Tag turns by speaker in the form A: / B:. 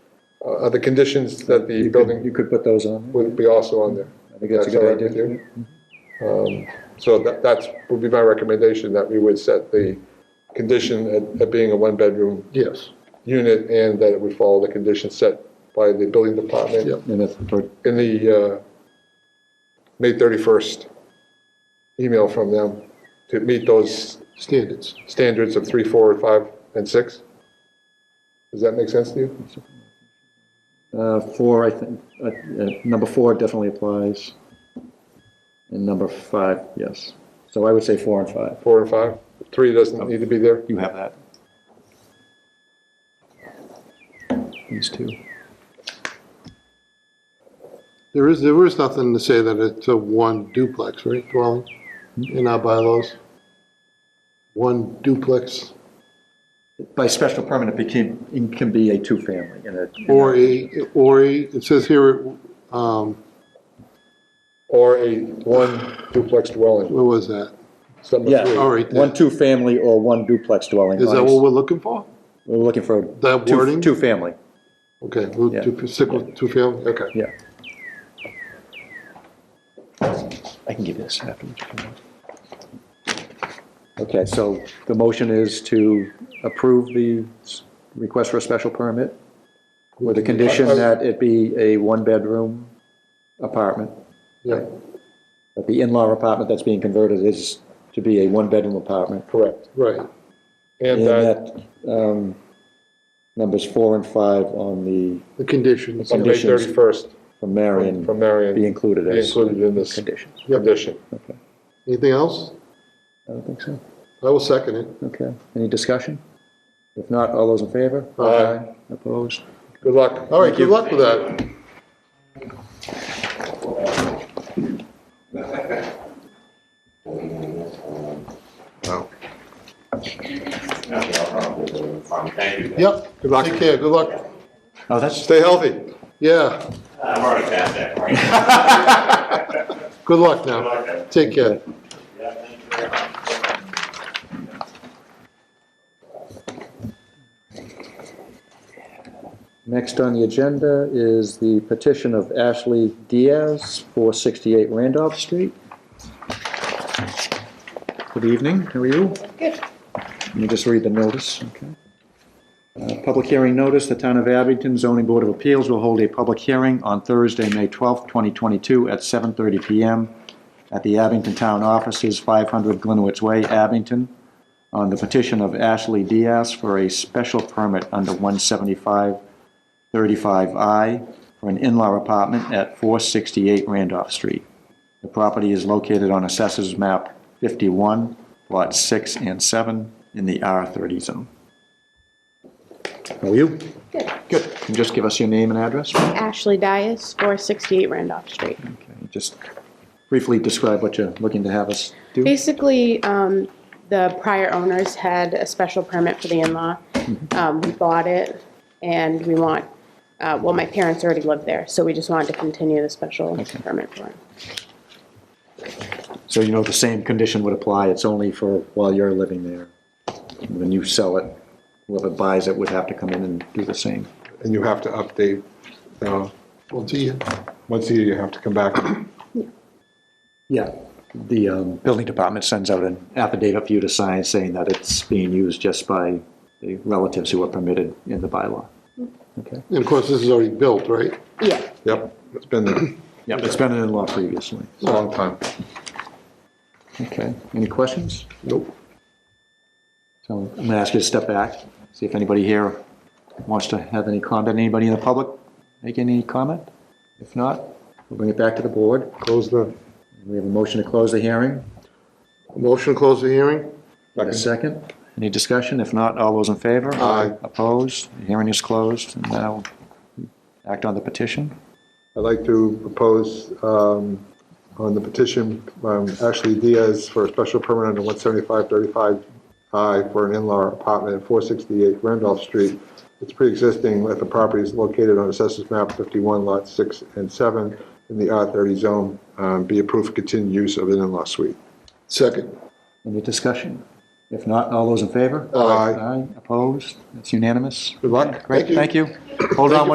A: uh, are the conditions that the
B: You could, you
A: building
B: could put those on.
A: would be also on there.
B: I think that's a
A: That's all right with
B: good idea.
A: you? Um, So that, that's, would be my recommendation, that we would set the condition at, at being a one-bedroom
C: Yes,
A: unit and that it would follow the conditions set by the building department
C: Yep.
B: And that's for
A: in the uh, May 31st email from them to meet those
C: standards.
A: standards of three, four, five, and six. Does that make sense to you?
B: Uh, Four, I think, uh, uh, number four definitely applies. And number five, yes. So I would say four and five.
A: Four and five? Three doesn't need to be there?
B: You have that. These two.
C: There is, there is nothing to say that it's a one duplex, right, dwelling in our bylaws? One duplex
B: By special permit, it became, it can be a two-family and a.
C: or a, or a, it says here, um,
A: Or a one duplex dwelling?
C: what was that?
A: It's number
B: Yeah,
A: three.
C: All Oh, right,
B: one
C: that-
B: two-family or one duplex dwelling.
C: Is that
B: on-
C: what we're looking for?
B: We're looking for.
C: That
B: two-
C: wording?
B: Two-family,
C: Okay, we'll
B: Yeah.
C: do- stick with two family, okay.
B: yeah. I can give you this afterwards. if you want. Okay, so the motion is to approve the s- request for a special permit with the condition
A: Uh,
B: that it be a one-bedroom apartment.
A: Yeah,
B: that the in-law apartment that's being converted is to be a one-bedroom apartment.
A: correct.
C: Right,
A: And uh,
B: And
A: that,
B: that, um, numbers four and five on the,
C: the conditions,
A: on May
B: conditions
A: 31st,
B: from Marion,
A: from
B: be
A: Marion,
B: included
A: be
B: as
A: included in this
B: conditions.
A: condition.
B: Okay,
C: anything else?
B: I don't think so.
C: I will second it.
B: Okay, any discussion? If not, all those in favor?
A: Aye.
B: Opposed?
A: Good luck.
C: All right, good luck with that.
D: Okay, I'll probably, fine, thank you.
C: Yep,
A: Good luck.
C: take care, good luck.
B: Oh, that's,
A: Stay healthy.
C: Yeah,
D: I'm already past that point.
C: good luck
D: I
C: now,
D: like that.
C: take care.
D: Yeah, thank you very much.
B: next on the agenda is the petition of Ashley Diaz, 468 Randolph Street. Good evening, how are you?
E: Good.
B: Let me just read the notice, okay? Uh, Public hearing notice, the Town of Abington Zoning Board of Appeals will hold a public hearing on Thursday, May 12th, 2022, at 7:30 PM at the Abington Town Offices, 500 Glenowitz Way, Abington, on the petition of Ashley Diaz for a special permit under 175-35I for an in-law apartment at 468 Randolph Street. The property is located on Assessors Map 51, Lots 6 and 7, in the R30 zone. How are you?
E: Good.
B: Good. Can you just give us your name and address? Okay.
E: Ashley Dias, 468 Randolph Street.
B: Just briefly describe what you're looking to have us do.
E: Basically, um, the prior owners had a special permit for the in-law. Um, We bought it, and we want, uh, well, my parents already lived there, so we just wanted to continue the special permit for it.
B: So you know the same condition would apply, it's only for while you're living there. When you sell it, whoever buys it would have to come in and do the same.
A: And you have to update, uh,
C: We'll see you.
A: once a year, you have to come back.
B: Yeah. The um, building department sends out an affidavit for you to sign saying that it's being used just by the relatives who are permitted in the bylaw. Okay.
C: And of course, this is already built, right?
E: Yeah,
A: Yep, it's been a
B: Yeah, it's been an in-law previously.
A: long time.
B: Okay. Any questions?
A: Nope.
B: So I'm going to ask you to step back, see if anybody here wants to have any comment. Anybody in the public make any comment? If not, we'll bring it back to the board.
C: Close the.
B: We have a motion to close the hearing.
C: Motion to close the hearing?
B: A second. Any discussion? If not, all those in favor?
C: Aye.
B: Opposed? The Hearing is closed. And now act on the petition.
A: I'd like to propose um, on the petition, um, Ashley Diaz for a special permit under 17535I for an in-law apartment at 468 Randolph Street. It's pre-existing, that the property is located on Assessors Map 51, Lot 6 and 7, in the R30 zone, um, be approved for continued use of an in-law suite.
C: Second.
B: Any discussion? If not, all those in favor?
A: Aye.
B: Aye. Opposed? It's unanimous.
A: Good luck.
B: Great,
C: Thank
B: thank you. Hold on